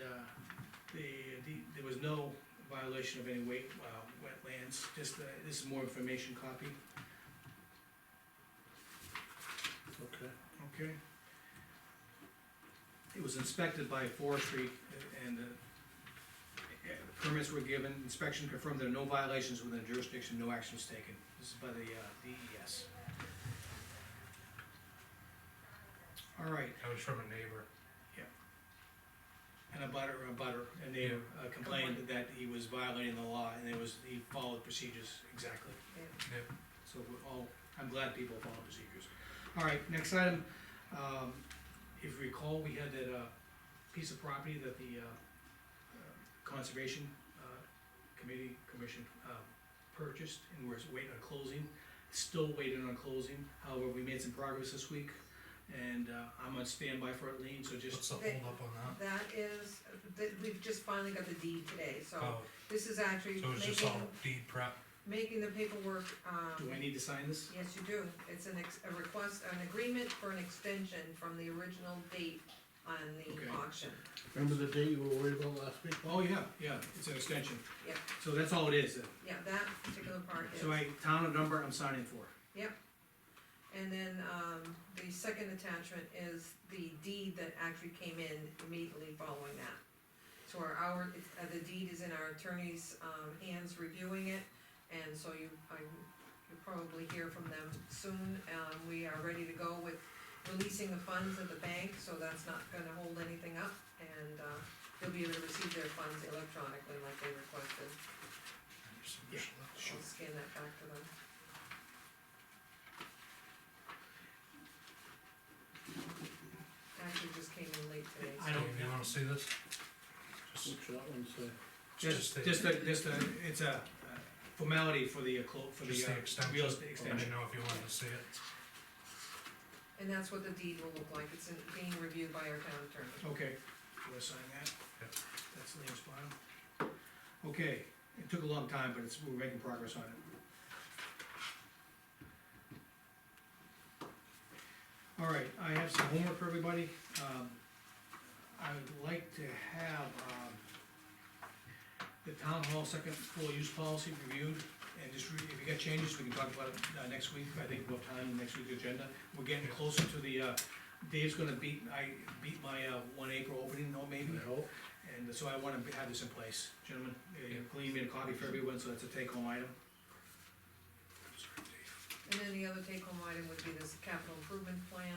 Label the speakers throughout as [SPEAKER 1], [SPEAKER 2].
[SPEAKER 1] uh, the, the, there was no violation of any wet, uh, wetlands, just, uh, this is more information copy,
[SPEAKER 2] Okay.
[SPEAKER 1] okay? It was inspected by forestry and, uh, permits were given, inspection confirmed there are no violations within the jurisdiction, no action was taken. This is by the, uh, DES. All right,
[SPEAKER 3] That was from a neighbor.
[SPEAKER 1] And a butter, a butter, and they uh, complained that he was violating the law, and it was, he followed procedures exactly.
[SPEAKER 3] Yep.
[SPEAKER 1] So we're all, I'm glad people follow procedures. All right, next item, um, if you recall, we had that, uh, piece of property that the, uh, uh, Conservation, uh, Committee, Commission, uh, purchased, and we're waiting on closing. Still waiting on closing, however, we made some progress this week, and, uh, I'm on standby for it, Lean, so just
[SPEAKER 3] What's the holdup on that?
[SPEAKER 4] That is, that, we've just finally got the deed today, so
[SPEAKER 3] Oh,
[SPEAKER 4] this is actually
[SPEAKER 3] so it was just
[SPEAKER 4] making,
[SPEAKER 3] all deed prep.
[SPEAKER 4] making the paperwork,
[SPEAKER 1] Do
[SPEAKER 4] um,
[SPEAKER 1] I need to sign this?
[SPEAKER 4] yes, you do. It's an ex, a request, an agreement for an extension from the original date on
[SPEAKER 1] Okay.
[SPEAKER 4] the auction.
[SPEAKER 2] Remember the day you were worried about last week?
[SPEAKER 1] Oh, yeah, yeah, it's an extension.
[SPEAKER 4] Yeah.
[SPEAKER 1] So that's all it is, then.
[SPEAKER 4] Yeah, that particular part is.
[SPEAKER 1] so I, town and number, I'm signing for.
[SPEAKER 4] And then, um, the second attachment is the deed that actually came in immediately following that. So our, our, it's- uh, the deed is in our attorney's, um, hands reviewing it, and so you, I, you'll probably hear from them soon. Um, we are ready to go with releasing the funds at the bank, so that's not gonna hold anything up, and, uh, they'll be able to receive their funds electronically like they requested.
[SPEAKER 1] Yeah,
[SPEAKER 4] I'll scan that back to them. Actually, just came in late today. so-
[SPEAKER 1] I don't
[SPEAKER 3] Dave, You wanna see this? Just-
[SPEAKER 2] What's that one say?
[SPEAKER 1] Just,
[SPEAKER 3] the-
[SPEAKER 1] just a, just a, it's a uh, formality for the, uh, clo- for the,
[SPEAKER 3] Just the
[SPEAKER 1] uh,
[SPEAKER 3] extension.
[SPEAKER 1] real estate
[SPEAKER 3] Let me
[SPEAKER 1] extension.
[SPEAKER 3] know if you wanted to see it.
[SPEAKER 4] And that's what the deed will look like, it's in- being reviewed by our town attorney.
[SPEAKER 1] Okay, you wanna sign that?
[SPEAKER 3] Yep.
[SPEAKER 1] That's Liam's file. Okay, it took a long time, but it's, we're making progress on it. All right, I have some homework for everybody. Um, I would like to have, um, the town hall second floor use policy reviewed, and just, re- if you got changes, we can talk about it, uh, next week, I think we'll have time in next week's agenda. We're getting closer to the, uh, Dave's gonna beat, I beat my, uh, one April opening, no, maybe?
[SPEAKER 2] No.
[SPEAKER 1] And so I wanna have this in place, gentlemen, Uh,
[SPEAKER 3] Yeah.
[SPEAKER 1] Colleen made a copy for everyone, so it's a take-home item.
[SPEAKER 4] And then the other take-home item would be this capital improvement plan.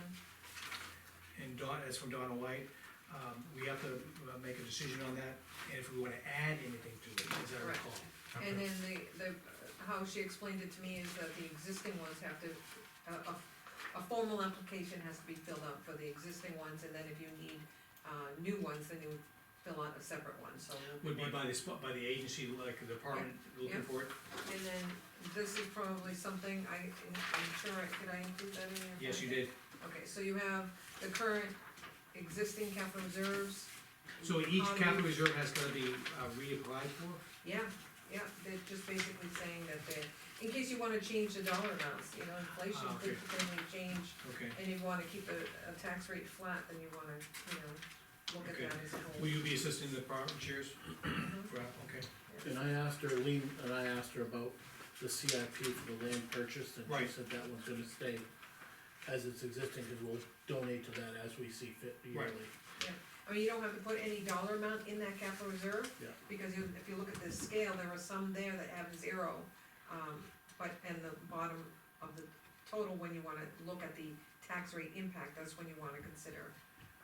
[SPEAKER 1] And Don, that's from Donna White, um, we have to uh, make a decision on that, and if we wanna add anything to it, as I
[SPEAKER 4] Correct.
[SPEAKER 1] recall.
[SPEAKER 3] Okay.
[SPEAKER 4] And then the, the, how she explained it to me is that the existing ones have to, a, a, a formal application has to be filled out for the existing ones, and then if you need, uh, new ones, then you fill out a separate one, so.
[SPEAKER 1] Would be by the, sp- by the agency, like the department looking
[SPEAKER 4] Yeah.
[SPEAKER 1] for it,
[SPEAKER 4] And then, this is probably something, I, I'm sure, I- did I include that in your?
[SPEAKER 1] yes, you
[SPEAKER 4] packet?
[SPEAKER 1] did.
[SPEAKER 4] Okay, so you have the current existing capital reserves,
[SPEAKER 1] So each
[SPEAKER 4] Um,
[SPEAKER 1] capital reserve has gotta be uh, reapplied for?
[SPEAKER 4] yeah, yeah, they're just basically saying that they, in case you wanna change the dollar amounts, you know, inflation
[SPEAKER 1] Ah, okay.
[SPEAKER 4] could potentially change,
[SPEAKER 1] Okay.
[SPEAKER 4] and you wanna keep the, a tax rate flat, then you wanna, you know, look at
[SPEAKER 1] Okay.
[SPEAKER 4] that as a whole.
[SPEAKER 1] Will you be assisting the department chairs?
[SPEAKER 4] Mhm.
[SPEAKER 1] For- Okay,
[SPEAKER 2] And I asked her, Lean, and I asked her about the CIP for the land purchase, and she
[SPEAKER 1] Right.
[SPEAKER 2] said that one's gonna stay as it's existing, cause we'll donate to that as we see fit yearly.
[SPEAKER 1] Right.
[SPEAKER 4] I mean, you don't have to put any dollar amount in that capital reserve.
[SPEAKER 2] Yeah.
[SPEAKER 4] Because you, if you look at the scale, there are some there that have zero, um, but, and the bottom of the total, when you wanna look at the tax rate impact, that's when you wanna consider.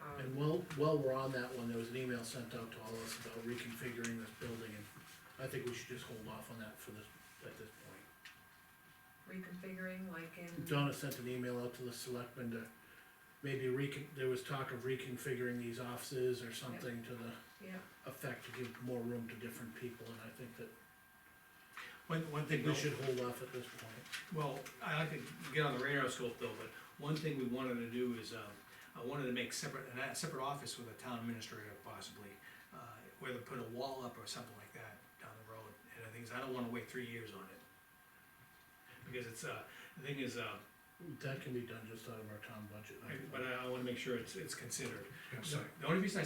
[SPEAKER 4] um,
[SPEAKER 2] And while, while we're on that one, there was an email sent out to all of us about reconfiguring this building, and I think we should just hold off on that for this, at this point.
[SPEAKER 4] Reconfiguring, like in,
[SPEAKER 2] Donna sent an email out to the selectmen to maybe recon, there was talk of reconfiguring these offices or something to the
[SPEAKER 4] yeah,
[SPEAKER 2] effect to give more room to different people, and I think that
[SPEAKER 1] one, one thing
[SPEAKER 2] we
[SPEAKER 1] we
[SPEAKER 2] should hold off at this point.
[SPEAKER 1] Well, I like to get on the radar scope though, but one thing we wanted to do is, uh, I wanted to make separate, a separate office with a town administrator possibly. uh, Whether put a wall up or something like that down the road, and the thing is, I don't wanna wait three years on it. Because it's, uh, the thing is, uh,
[SPEAKER 2] That can be done just out of our town budget. I
[SPEAKER 1] I-
[SPEAKER 2] think.
[SPEAKER 1] but I, I wanna make sure it's, it's considered.
[SPEAKER 3] Yeah, so-
[SPEAKER 1] The only reason I